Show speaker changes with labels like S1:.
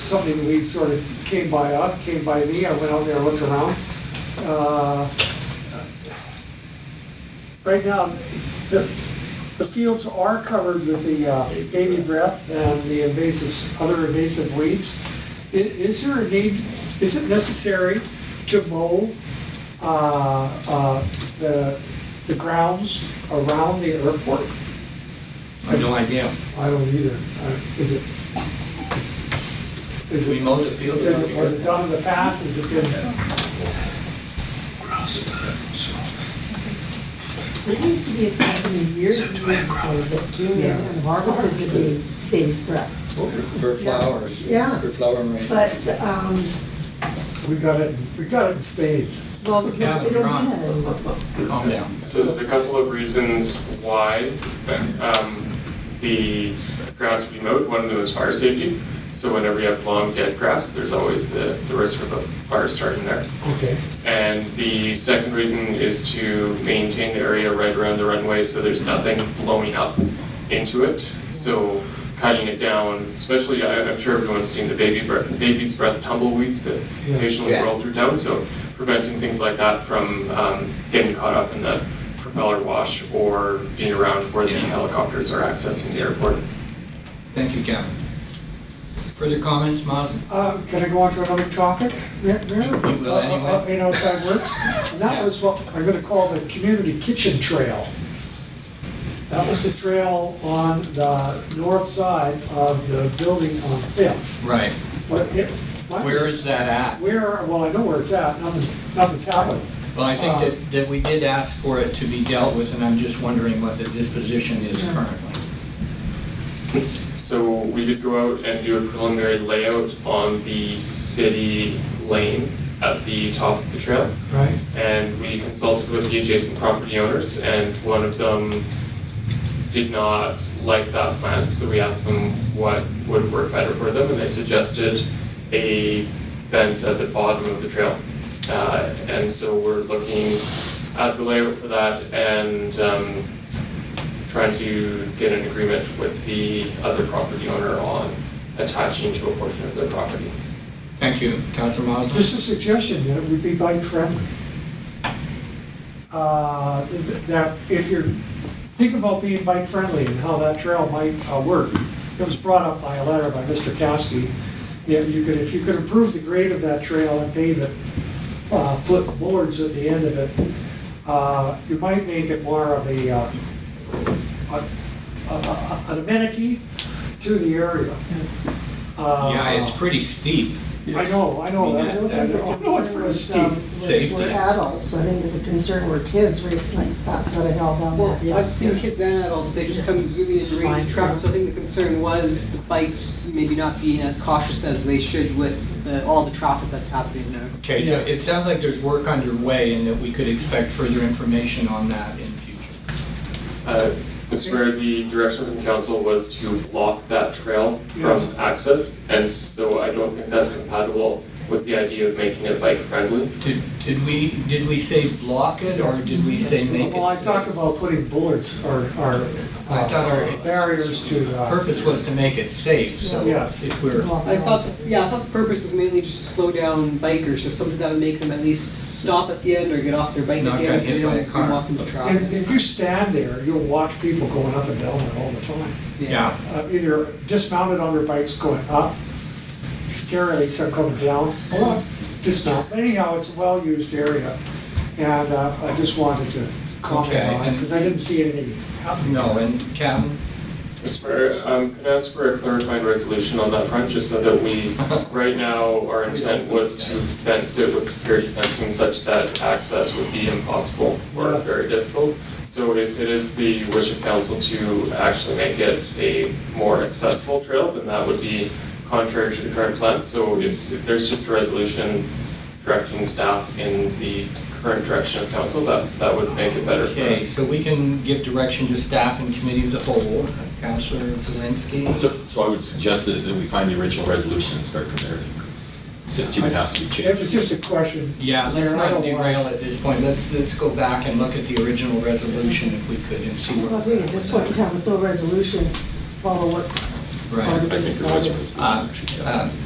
S1: something we sort of came by, uh, came by me, I went out there, looked around. Uh, Right now, the, the fields are covered with the uh, baby breath and the invasive, other invasive weeds. I- Is there a need, is it necessary to mow uh, uh, the, the grounds around the airport?
S2: I have no idea.
S1: I don't either. Uh, Is it? Is
S2: We
S1: it,
S2: mowed the field.
S1: is it, was it done in the past? Has it been?
S3: There used to be a company years and years ago that came in and harvested the baby's breath.
S4: For flowers.
S3: Yeah.
S4: For flower arrangements.
S3: But, um,
S1: We got it, we got it in spades.
S3: well, we
S2: Yeah,
S3: don't we don't do
S2: Ron.
S3: that anymore.
S2: Calm down.
S5: So there's a couple of reasons why um, the grass would be mowed. One of them is fire safety. So whenever you have long dead grass, there's always the, the risk of a fire starting there.
S1: Okay.
S5: And the second reason is to maintain the area right around the runway so there's nothing blowing up into it. So cutting it down, especially, I- I'm sure everyone's seen the baby breath, baby's breath tumbleweeds that
S1: Yeah.
S5: occasionally
S4: Yeah.
S5: roll through town. So preventing things like that from um, getting caught up in the propeller wash or being around where the helicopters are accessing the airport.
S2: Thank you, Kevin. Further comments, Mazen?
S1: Uh, Can I go on to another topic? Mayor- Mayor?
S2: You- you will
S1: Uh, uh,
S2: anyway.
S1: uh, You know, if that works. And that
S2: Yeah.
S1: was what I'm gonna call the community kitchen trail. That was the trail on the north side of the building on Fifth.
S2: Right.
S1: But it- my-
S2: Where is that at?
S1: Where, well, I know where it's at, nothing, nothing's happened.
S2: Well, I think that, that we did ask for it to be dealt with, and I'm just wondering what the disposition is currently.
S5: So we did go out and do a preliminary layout on the city lane at the top of the trail.
S1: Right.
S5: and we consulted with the adjacent property owners, and one of them did not like that plan, so we asked them what would work better for them, and they suggested a fence at the bottom of the trail. Uh, and so we're looking at the layout for that and, um, trying to get an agreement with the other property owner on attaching to a portion of their property.
S2: Thank you, Councilor Maslin.
S1: Just a suggestion, that it would be bike friendly. Uh, th- That if you're, think about being bike friendly and how that trail might uh, work. It was brought up by a letter by Mr. Caskey. Yeah, you could, if you could improve the grade of that trail and pave it, uh, put boards at the end of it, uh, you might make it more of a, uh, a- a- a- an amenity to the area. Uh,
S2: Yeah, it's pretty steep.
S1: I know, I know,
S2: I mean,
S1: that's,
S3: I
S1: I
S3: think the
S1: know, I know it's
S3: concern
S1: pretty
S3: was,
S1: steep.
S3: um, was
S2: Safety.
S3: We're adults, I think the concern were kids racing like that, so they held down
S6: Well,
S3: that. yeah.
S6: I've seen kids and adults, they just come zooming into range
S3: Fine.
S6: of traffic, so I think the concern was the bikes maybe not being as cautious as they should with the, all the traffic that's happening now.
S2: Okay, so it sounds like there's work underway and that we could expect further information on that in future.
S5: Uh, Mr. Mayor, the direction from council was to block that trail
S1: Yes.
S5: from access, and so I don't think that's compatible with the idea of making it bike friendly.
S2: Did, did we, did we say block it or did we say make it?
S1: Well, I
S2: safe?
S1: talked about putting bullets or, or
S2: I thought our-
S1: uh, barriers to, uh,
S2: Purpose was to make it safe, so
S1: Yes.
S2: if we're.
S3: Well,
S6: I thought, the- yeah, I thought the purpose was mainly just to slow down bikers, so something that would make them at least stop at the end or get off their bike
S2: Not
S6: at the
S2: get
S6: end so they
S2: hit by a
S6: don't zoom
S2: car.
S6: off into
S1: if,
S6: traffic.
S1: if you stand there, you'll watch people going up and down it all the time.
S2: Yeah,
S1: Uh, Either dismounted on their bikes going up, scarily start coming down, or dismount. Anyhow, it's a well-used area, and uh, I just wanted to
S2: Okay,
S1: comment on it,
S2: and-
S1: because I didn't see anything happening.
S2: no, and Captain,
S5: Mr. Mayor, um, can I ask for a clarifying resolution on that front, just so that we, right now, our intent was to fence it with security fencing such that access would be impossible or
S1: Yeah.
S5: very difficult. So if it is the wish of council to actually make it a more accessible trail, then that would be contrary to the current plan. So if, if there's just a resolution directing staff in the current direction of council, that, that would make it better for
S2: okay,
S5: us.
S2: so we can give direction to staff and committee of the whole. Counselor Zelinski?
S7: So, so I would suggest that, that we find the original resolution and start from there. See, see what has to be
S1: It
S7: changed.
S1: was just a question.
S2: Yeah, let's
S1: Mayor, I
S2: not
S1: don't want-
S2: derail at this point. Let's, let's go back and look at the original resolution if we could and see
S3: Well, I
S2: where.
S3: think at this point in time, with no resolution, follow what.
S2: Right.
S7: I think there was a resolution,
S2: Uh,
S7: actually, yeah.
S2: uh,